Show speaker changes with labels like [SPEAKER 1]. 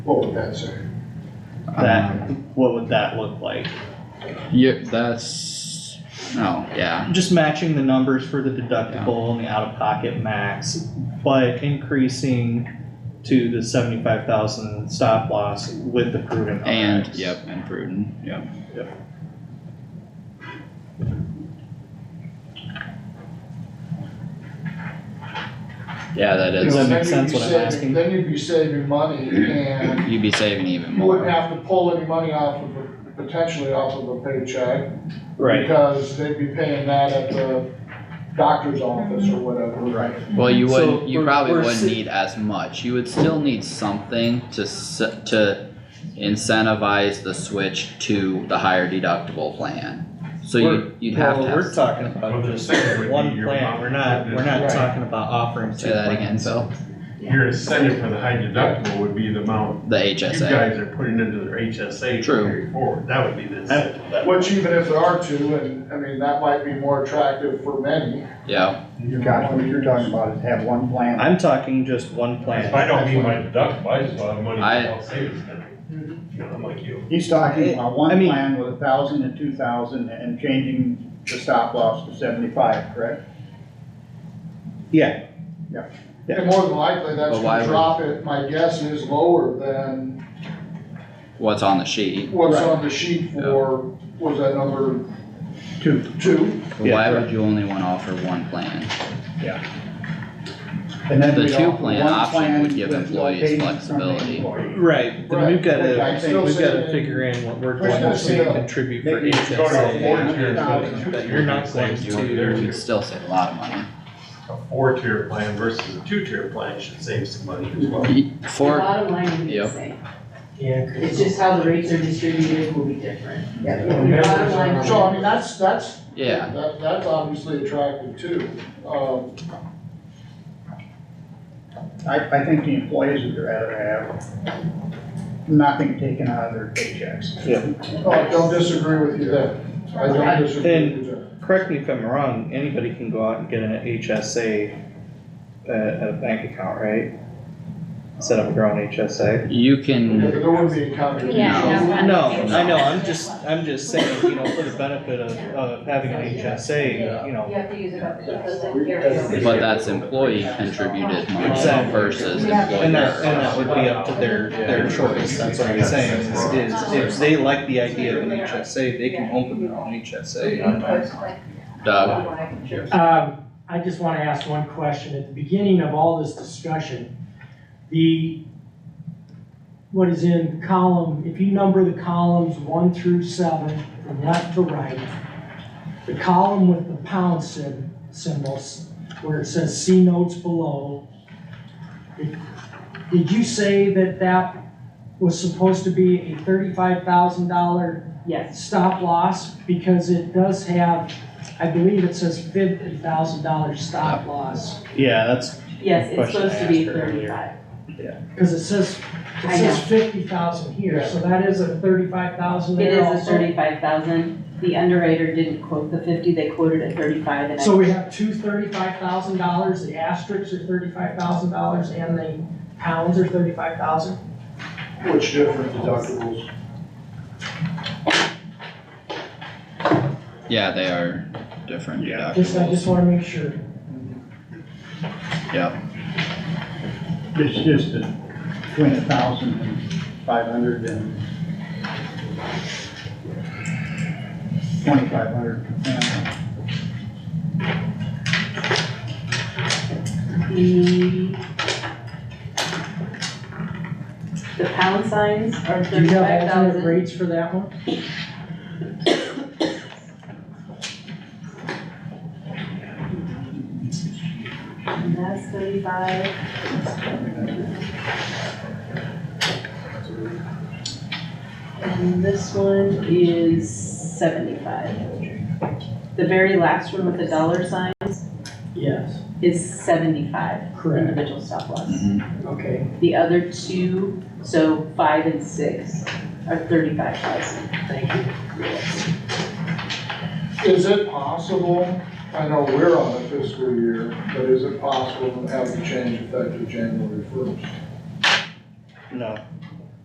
[SPEAKER 1] What would that say?
[SPEAKER 2] That,
[SPEAKER 3] Um,
[SPEAKER 2] what would that look like?
[SPEAKER 3] Yeah, that's, oh, yeah,
[SPEAKER 2] Just matching the numbers for the deductible and the out-of-pocket max, but increasing to the seventy-five thousand stop loss with the proven
[SPEAKER 3] and,
[SPEAKER 2] RX.
[SPEAKER 3] yep, and prudent, yep. Yeah, that
[SPEAKER 2] Does
[SPEAKER 3] is,
[SPEAKER 2] that make
[SPEAKER 1] Then you'd
[SPEAKER 2] sense
[SPEAKER 1] be
[SPEAKER 2] what I'm
[SPEAKER 1] saving-
[SPEAKER 2] asking?
[SPEAKER 1] Then you'd be saving money and
[SPEAKER 3] you'd be saving even
[SPEAKER 1] you wouldn't
[SPEAKER 3] more,
[SPEAKER 1] have to pull any money off of, a- potentially off of a paycheck.
[SPEAKER 2] Right,
[SPEAKER 1] Because they'd be paying that at the doctor's office or whatever.
[SPEAKER 2] Right.
[SPEAKER 3] well, you
[SPEAKER 2] So
[SPEAKER 3] would, you
[SPEAKER 2] we're-
[SPEAKER 3] probably
[SPEAKER 2] we're
[SPEAKER 3] wouldn't
[SPEAKER 2] sa-
[SPEAKER 3] need as much, you would still need something to s- to incentivize the switch to the higher deductible plan, so
[SPEAKER 2] We're-
[SPEAKER 3] you, you'd have to
[SPEAKER 2] well,
[SPEAKER 3] have.
[SPEAKER 2] we're talking
[SPEAKER 4] Well,
[SPEAKER 2] about
[SPEAKER 4] the
[SPEAKER 2] just
[SPEAKER 4] second would be
[SPEAKER 2] one
[SPEAKER 4] your
[SPEAKER 2] plan,
[SPEAKER 4] mom-
[SPEAKER 2] we're not, we're not
[SPEAKER 1] Right.
[SPEAKER 2] talking about offering two
[SPEAKER 3] Say that again,
[SPEAKER 2] plans.
[SPEAKER 3] Phil,
[SPEAKER 4] Your incentive for the high deductible would be the amount
[SPEAKER 3] the
[SPEAKER 4] you
[SPEAKER 3] HSA,
[SPEAKER 4] guys are putting into their HSA
[SPEAKER 3] True.
[SPEAKER 4] to carry forward, that would be the incentive. That would-
[SPEAKER 1] Which even if there are two, and I mean, that might be more attractive for many.
[SPEAKER 3] yeah,
[SPEAKER 5] Gotcha, what you're talking about is have one plan.
[SPEAKER 2] I'm talking just one
[SPEAKER 4] If
[SPEAKER 2] plan,
[SPEAKER 4] I don't meet my deductible, I just want the money
[SPEAKER 3] I-
[SPEAKER 4] I'll save is gonna, you know, I'm like you.
[SPEAKER 5] He's talking about one
[SPEAKER 2] I mean-
[SPEAKER 5] plan with a thousand and two thousand and changing the stop loss to seventy-five, correct?
[SPEAKER 2] yeah, Yeah.
[SPEAKER 1] And more than likely, that's
[SPEAKER 3] But why
[SPEAKER 1] gonna
[SPEAKER 3] would-
[SPEAKER 1] drop it, my guess is lower than
[SPEAKER 3] what's on the sheet.
[SPEAKER 1] what's
[SPEAKER 5] Right.
[SPEAKER 1] on the sheet for, was that number
[SPEAKER 5] Two.
[SPEAKER 1] two?
[SPEAKER 3] But
[SPEAKER 2] Yeah,
[SPEAKER 3] Why
[SPEAKER 2] correct.
[SPEAKER 3] would you only wanna offer one plan?
[SPEAKER 5] And then
[SPEAKER 3] The
[SPEAKER 5] we'd
[SPEAKER 3] two
[SPEAKER 5] offer
[SPEAKER 3] plan
[SPEAKER 5] one
[SPEAKER 3] option
[SPEAKER 5] plan
[SPEAKER 3] would give
[SPEAKER 5] with
[SPEAKER 3] employees
[SPEAKER 5] locations from the
[SPEAKER 3] flexibility.
[SPEAKER 5] employee.
[SPEAKER 2] right, then we've
[SPEAKER 1] Right, which
[SPEAKER 2] gotta,
[SPEAKER 1] I'm
[SPEAKER 2] I
[SPEAKER 1] still
[SPEAKER 2] think we've gotta
[SPEAKER 1] saying-
[SPEAKER 2] figure in what we're
[SPEAKER 1] We're
[SPEAKER 2] going
[SPEAKER 1] still
[SPEAKER 2] to
[SPEAKER 1] saying-
[SPEAKER 2] contribute for
[SPEAKER 5] Maybe you
[SPEAKER 2] each
[SPEAKER 5] should
[SPEAKER 4] Go to a
[SPEAKER 5] say
[SPEAKER 4] four
[SPEAKER 5] yeah.
[SPEAKER 4] tier.
[SPEAKER 5] $100,000.
[SPEAKER 2] that you're not going to-
[SPEAKER 3] You'd still save a lot of money.
[SPEAKER 4] A four tier plan versus a two tier plan should save some money as well.
[SPEAKER 6] The
[SPEAKER 3] For,
[SPEAKER 6] bottom line would be the
[SPEAKER 3] Yep.
[SPEAKER 6] same.
[SPEAKER 7] Yeah,
[SPEAKER 6] It's
[SPEAKER 7] 'cause
[SPEAKER 6] just how the rates are distributed will be different.
[SPEAKER 7] the
[SPEAKER 6] Your bottom
[SPEAKER 7] members
[SPEAKER 6] line
[SPEAKER 7] are-
[SPEAKER 6] would
[SPEAKER 1] So I mean, that's, that's,
[SPEAKER 3] yeah,
[SPEAKER 1] that, that's obviously attractive too. Um,
[SPEAKER 5] I, I think the employees would rather have nothing taken out of their paychecks.
[SPEAKER 1] I don't disagree with you there. I don't disagree with you there.
[SPEAKER 2] correct me if I'm wrong, anybody can go out and get an HSA at, at uh, a bank account, right? Set up your own HSA.
[SPEAKER 3] you
[SPEAKER 1] Yeah,
[SPEAKER 3] can,
[SPEAKER 1] but There would be a combination.
[SPEAKER 3] Yeah.
[SPEAKER 2] No, I know, I'm just, I'm just saying, you know, for the benefit of, of having an HSA, you know,
[SPEAKER 8] You have to use it up to
[SPEAKER 3] but that's employee contributed money
[SPEAKER 2] Exactly.
[SPEAKER 3] versus
[SPEAKER 2] and that, and
[SPEAKER 3] employer.
[SPEAKER 2] that would be up to their, their choice, that's what I'm saying, is, is if they like the idea of an HSA, they can open their own HSA.
[SPEAKER 3] Doug,
[SPEAKER 7] Um, I just wanna ask one question. At the beginning of all this discussion, the, what is in column, if you number the columns one through seven, from left to right, the column with the pound sym- symbols, where it says C notes below, did- did you say that that was supposed to be a thirty-five thousand dollar
[SPEAKER 6] Yes,
[SPEAKER 7] stop loss, because it does have, I believe it says fifty thousand dollar stop loss.
[SPEAKER 2] Yeah, that's,
[SPEAKER 6] yes, it's
[SPEAKER 2] Question I
[SPEAKER 6] supposed to be
[SPEAKER 2] asked her earlier.
[SPEAKER 6] thirty-five.
[SPEAKER 7] Cause it says, it
[SPEAKER 6] I
[SPEAKER 7] says fifty thousand here, so that is a thirty-five thousand
[SPEAKER 6] It
[SPEAKER 7] there
[SPEAKER 6] is a
[SPEAKER 7] also.
[SPEAKER 6] thirty-five thousand. The underwriter didn't quote the fifty, they quoted a thirty-five and I.
[SPEAKER 7] So we have two thirty-five thousand dollars, the asterisks are thirty-five thousand dollars, and the pounds are thirty-five thousand.
[SPEAKER 1] Which different deductibles?
[SPEAKER 3] yeah, they are different
[SPEAKER 2] Yeah.
[SPEAKER 7] Just, I just
[SPEAKER 3] deductibles,
[SPEAKER 7] wanna make sure.
[SPEAKER 3] yep,
[SPEAKER 5] It's just that between a thousand and five hundred and twenty-five hundred per family.
[SPEAKER 6] The the pound signs are
[SPEAKER 7] Do you
[SPEAKER 6] thirty-five
[SPEAKER 7] have alternate
[SPEAKER 6] thousand.
[SPEAKER 7] rates for that one?
[SPEAKER 6] And that's thirty-five. And this one is seventy-five. The very last one with the dollar signs
[SPEAKER 7] Yes.
[SPEAKER 6] is seventy-five
[SPEAKER 7] Correct,
[SPEAKER 6] individual stop loss.
[SPEAKER 3] mhm,
[SPEAKER 7] okay.
[SPEAKER 6] The other two, so five and six, are thirty-five thousand.
[SPEAKER 7] Thank you.
[SPEAKER 1] Is it possible, I know we're on a fiscal year, but is it possible to have the change effective January first?
[SPEAKER 2] no,